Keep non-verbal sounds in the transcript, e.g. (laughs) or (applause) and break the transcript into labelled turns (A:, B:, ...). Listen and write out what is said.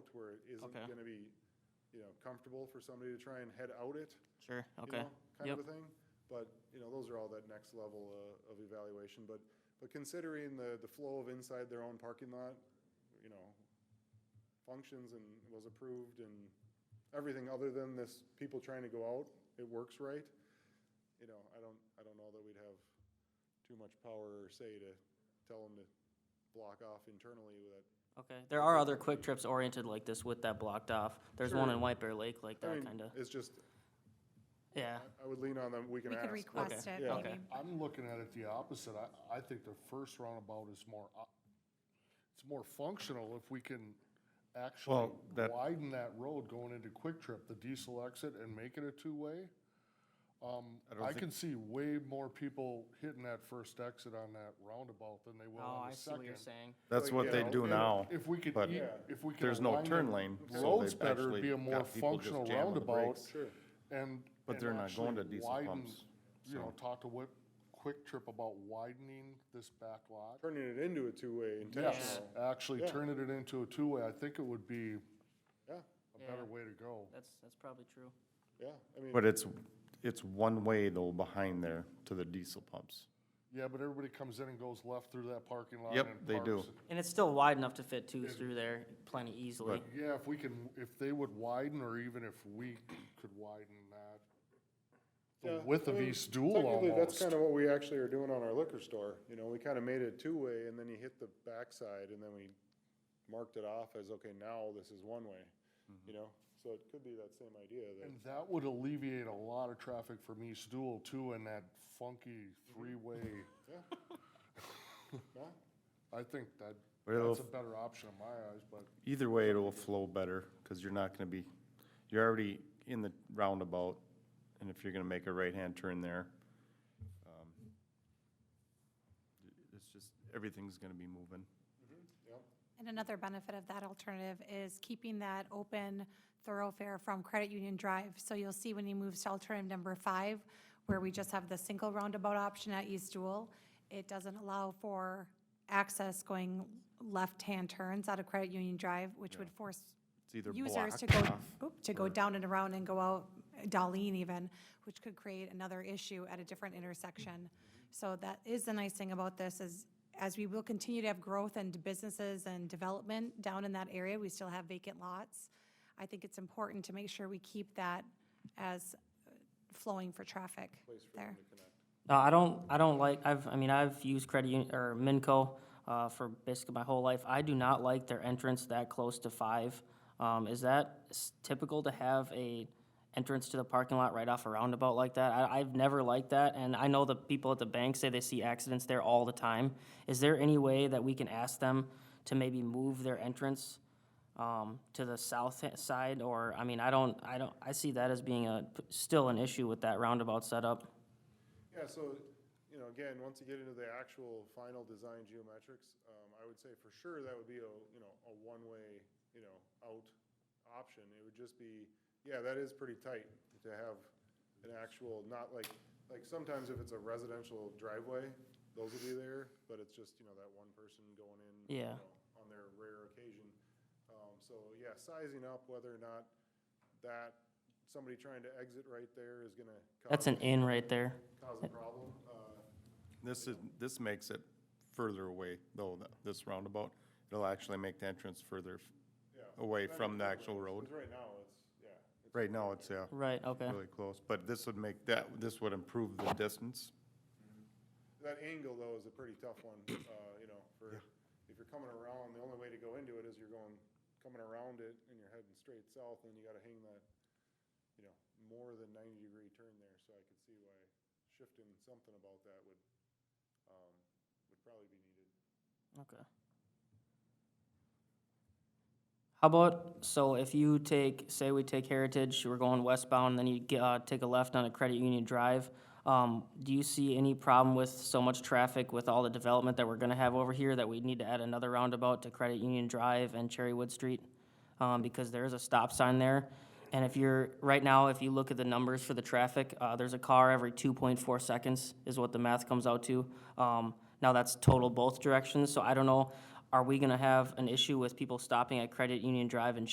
A: out where it isn't
B: Okay.
A: gonna be, you know, comfortable for somebody to try and head out it.
B: Sure,
A: you
B: okay.
A: know, Kind
B: Yep,
A: of a thing, but, you know, those are all that next level uh, of evaluation, but, but considering the, the flow of inside their own parking lot, you know, functions and was approved and everything other than this, people trying to go out, it works right. You know, I don't, I don't know that we'd have too much power or say to tell them to block off internally with that
B: okay. There are other quick trips oriented like this with that blocked off. There's one
A: Sure.
B: in White Bear Lake like
A: I
B: that,
A: mean,
B: kinda.
A: It's just,
B: Yeah,
A: I I would lean on them, we can
C: We could
A: ask.
C: request
B: Okay.
C: it,
A: Yeah.
C: maybe.
D: I'm looking at it the opposite. I, I think the first roundabout is more, op- it's more functional if we can actually
E: Well, that-
D: widen that road going into Quick Trip, the diesel exit, and make it a two-way. Um,
E: I don't
D: I
E: think-
D: can see way more people hitting that first exit on that roundabout than they will
B: oh,
D: on
B: I
D: the
B: see what you're
D: second.
B: saying.
E: That's
A: Like,
E: what
A: you
E: they
A: know,
E: do
D: And
E: now.
D: If we could,
E: but
D: e- if we could.
E: there's no
D: align
E: turn
D: the
E: lane, so
D: Roads
E: they've
D: better, it'd be a
E: actually
D: more
E: got people just
D: functional
E: jamming the
D: roundabout.
E: brakes.
A: Sure.
D: And.
E: But
D: and
E: they're not going
D: actually
E: to diesel
D: widen,
E: pumps,
D: You know,
E: so.
D: talk to Whip, Quick Trip about widening this back lot.
A: Turning it into a two-way
D: Yes,
A: intentional,
D: actually
A: Yeah.
D: turning it into a two-way, I think it would be
A: yeah,
D: a better
B: Yeah.
D: way to go.
B: That's, that's probably true.
A: yeah, I mean,
E: But it's, it's one way though behind there to the diesel pumps.
D: Yeah, but everybody comes in and goes left through that parking lot.
E: Yep,
D: and
E: they do.
D: parks.
B: And it's still wide enough to fit two through there plenty easily.
D: Yeah, if we can, if they would widen, or even if we could widen that, the
A: Yeah,
D: width
A: I
D: of
A: mean,
D: East Dual
A: Technically, that's
D: almost.
A: kind of what we actually are doing on our liquor store, you know, we kind of made it two-way, and then you hit the backside, and then we marked it off as, okay, now this is one-way,
D: Mm-hmm.
A: you know, so it could be that same idea that,
D: And that would alleviate a lot of traffic from East Dual too, and that funky three-way.
A: yeah,
D: (laughs) I think that,
E: But it'll-
D: that's a better option in my eyes, but
E: Either way, it will flow better because you're not gonna be, you're already in the roundabout. And if you're gonna make a right-hand turn there, um, it's just, everything's gonna be moving.
A: yeah.
C: And another benefit of that alternative is keeping that open thoroughfare from Credit Union Drive. So you'll see when he moves to alternative number five, where we just have the single roundabout option at East Dual, it doesn't allow for access going left-hand turns out of Credit Union Drive, which would force
E: It's either
C: users to
E: (laughs) blocked
C: go,
E: off
C: oop, to go down and around and go out, Darlene even, which could create another issue at a different intersection. So that is the nice thing about this is, as we will continue to have growth and businesses and development down in that area, we still have vacant lots. I think it's important to make sure we keep that as uh, flowing for traffic there.
B: No, Uh, I don't, I don't like, I've, I mean, I've used credit union, or Minco, uh, for basically my whole life. I do not like their entrance that close to five. Um, is that s- typical to have a entrance to the parking lot right off a roundabout like that? I, I've never liked that, and I know the people at the bank say they see accidents there all the time. Is there any way that we can ask them to maybe move their entrance, um, to the south h- side? Or, I mean, I don't, I don't, I see that as being a, still an issue with that roundabout setup.
A: Yeah, so, you know, again, once you get into the actual final design geometrics, um, I would say for sure that would be a, you know, a one-way, you know, out option. It would just be, yeah, that is pretty tight to have an actual, not like, like sometimes if it's a residential driveway, those will be there, but it's just, you know, that one person going in. you
B: Yeah.
A: know, On their rare occasion. Um, so, yeah, sizing up whether or not that, somebody trying to exit right there is gonna.
B: That's an
A: cause-
B: in right there.
A: cause a problem. Uh,
E: This is, this makes it further away, though, th- this roundabout. It'll actually make the entrance further f-
A: yeah.
E: away
A: That
E: from the
A: is-
E: actual road.
A: 'cause right now, it's, yeah. it's-
E: Right now, it's, yeah,
B: Right, okay.
E: really close, but this would make that, this would improve the distance.
A: That angle, though, is a pretty tough one, uh, you know, for, if you're coming around, the only way to go into it is you're going, coming around it and you're heading straight south, and you gotta hang that, you know, more than ninety degree turn there, so I could see why shifting something about that would, um, would probably be needed.
B: Okay. How about, so if you take, say we take Heritage, we're going westbound, then you get, uh, take a left on a Credit Union Drive. Um, do you see any problem with so much traffic with all the development that we're gonna have over here that we need to add another roundabout to Credit Union Drive and Cherrywood Street? Um, because there is a stop sign there. And if you're, right now, if you look at the numbers for the traffic, uh, there's a car every two point four seconds is what the math comes out to. Um, now that's total both directions, so I don't know, are we gonna have an issue with people stopping at Credit Union Drive and